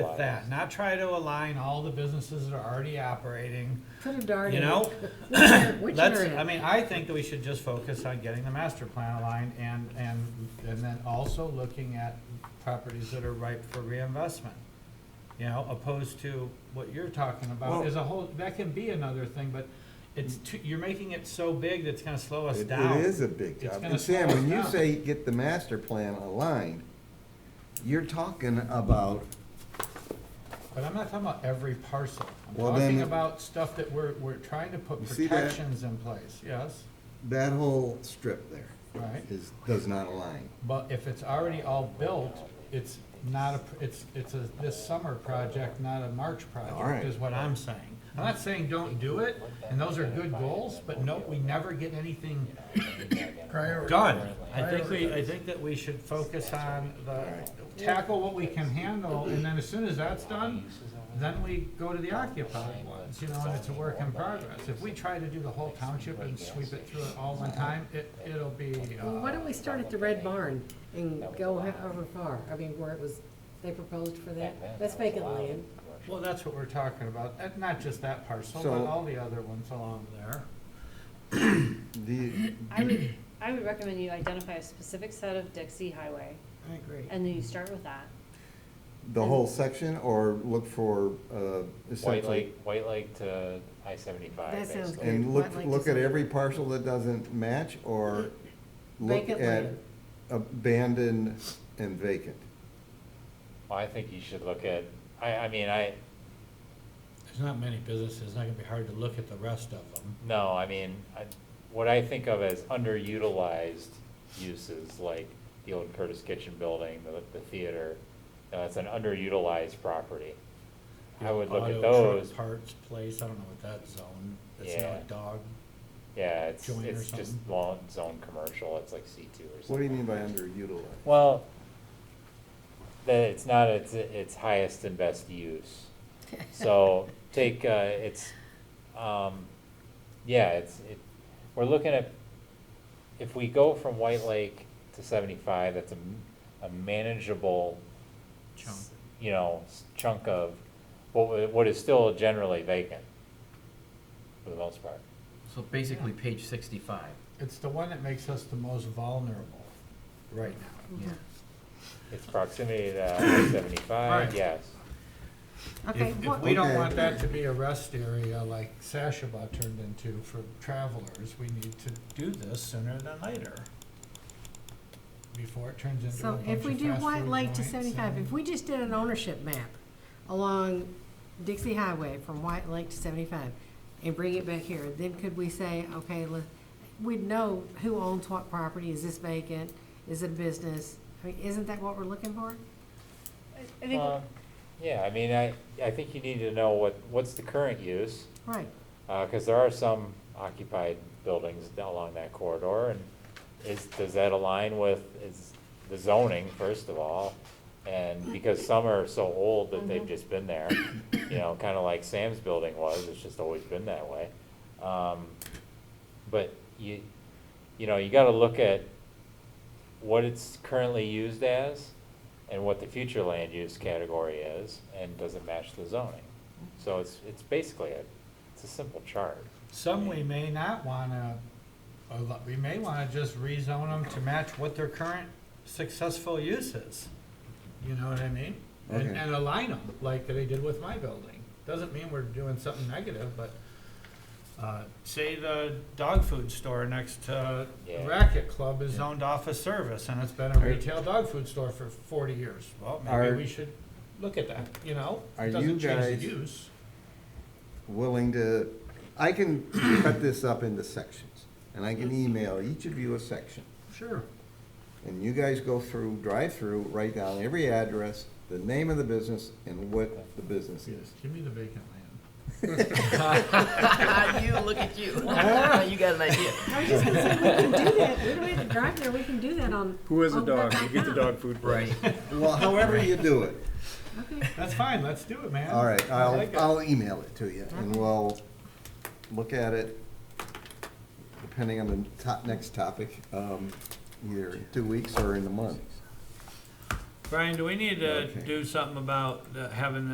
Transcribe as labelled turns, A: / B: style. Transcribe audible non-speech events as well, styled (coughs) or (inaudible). A: with that, not try to align all the businesses that are already operating,
B: Put a dart in.
A: you
B: it.
A: know?
B: Which are-
A: (coughs)
B: Which
A: Let's,
B: are
A: I
B: in?
A: mean, I think that we should just focus on getting the master plan aligned and, and, and then also looking at properties that are ripe for reinvestment. You know, opposed to what you're talking about
C: Well-
A: is a whole, that can be another thing, but it's too, you're making it so big that's gonna slow us
C: It-
A: down.
C: It is a big
A: It's
C: job.
A: gonna
C: And Sam,
A: slow us
C: when you
A: down.
C: say get the master plan aligned, you're talking about,
A: But I'm not talking about every parcel. I'm
C: Well, then-
A: talking about stuff that we're, we're trying to put
C: You see that?
A: protections in place, yes?
C: that whole strip there
A: Right.
C: is, does not align.
A: But if it's already all built, it's not a, it's, it's a, this summer project, not a March
C: All right.
A: project, is what I'm saying. I'm not saying don't do it, and those are good goals, but no, we never get anything done. I think we, I think that we should focus on the, tackle what we can handle, and then as soon as that's done, then we go to the occupied ones, you know, and it's a work in progress. If we try to do the whole township and sweep it through it all one time, it, it'll be, uh.
B: Well, why don't we start at the Red Barn and go however far? I mean, where it was, they proposed for that. That's vacant land.
A: Well, that's what we're talking about, Uh, not just that parcel, but
C: So-
A: all the other ones along there.
C: The,
D: I would, I would recommend you identify a specific set of Dixie Highway,
B: I agree.
D: and then you start with that.
C: the whole section or look for, uh,
E: White
C: essentially,
E: Lake, White Lake to I seventy-five,
B: That sounds
E: basically.
C: and look,
B: I'd like to
C: look at
B: see-
C: every parcel that doesn't match or look
B: Vacant
C: at
B: land.
C: abandoned and vacant.
E: Well, I think you should look at, I, I mean, I,
A: There's not many businesses, it's not gonna be hard to look at the rest of them.
E: no, I mean, I, what I think of as underutilized uses, like the old Curtis Kitchen building, the, the theater, you know, it's an underutilized property. I would look at
A: Auto truck
E: those,
A: Parts place, I don't know what that zone, it's
E: Yeah.
A: not a dog.
E: yeah, it's,
A: joint or
E: it's just
A: something.
E: long zone commercial, it's like C two or something.
C: What do you mean by underutilized?
E: Well, that it's not its, its highest and best use. So take, uh, it's, um, yeah, it's, it, we're looking at, if we go from White Lake to seventy-five, that's a, m- a manageable,
A: Chunk.
E: s- you know, s- chunk of what, wa- what is still generally vacant, for the most part.
F: So basically, page sixty-five.
A: It's the one that makes us the most vulnerable right now.
F: Yeah.
E: It's proximity to
A: (coughs)
E: I seventy-five,
A: Right.
E: yes.
B: Okay,
A: If- If
B: what-
A: we don't
C: Okay.
A: want that to be a rest area like Sashaba turned into for travelers, we need to do this sooner than later. Before it turns into a
B: so
A: bunch
B: if we
A: of
B: do
A: fast
B: White
A: food
B: Lake to
A: joints
B: seventy-five,
A: and-
B: if we just did an ownership map along Dixie Highway from White Lake to seventy-five and bring it back here, then could we say, okay, let, we'd know who owns what property, is this vacant, is it a business? I mean, isn't that what we're looking for?
D: I think,
E: Uh, Yeah, I mean, I, I think you need to know what, what's the current use,
B: Right.
E: uh, cause there are some occupied buildings down along that corridor, and is, does that align with, is the zoning, first of all? And because some are so old that they've
D: Mm-hmm.
E: just been there, you know, kinda like Sam's building was, it's just always been that way. Um, but you, you know, you gotta look at what it's currently used as and what the future land use category is, and does it match the zoning? So it's, it's basically a, it's a simple chart.
F: (laughs)
A: Some we may not wanna, or lo- we may wanna just rezone them to match what their current successful use is. You know what I mean? And,
C: Okay.
A: and align them like they did with my building. Doesn't mean we're doing something negative, but, uh, say the dog food store next to
E: Yeah.
A: Racket Club is zoned off a service and it's been a retail dog food store for forty years. Well,
C: Are-
A: maybe we should look at that, you know?
C: Are you
A: Doesn't change
C: guys-
A: the use.
C: willing to, I can cut this up into sections, and I can email each of you a section.
A: Sure.
C: And you guys go through, drive through, write down every address, the name of the business, and what the business
A: (laughs)
C: is.
A: Give me the vacant land.
F: you look at you. you got an idea.
B: I was just gonna say, we can do that, we don't have to drive there, we can do that on.
G: Who has a
B: on the
G: dog? You get the
B: dot
G: dog food.
F: Right.
C: Well, however you do it.
B: com. Okay,
A: That's fine, let's do it, man.
C: All right,
A: I
C: I'll,
A: like it.
C: I'll email it to you, and we'll look at it, depending on the top, next topic, um, either in two weeks or in a month.
A: Brian, do we need to
H: Okay.
A: do something about uh, having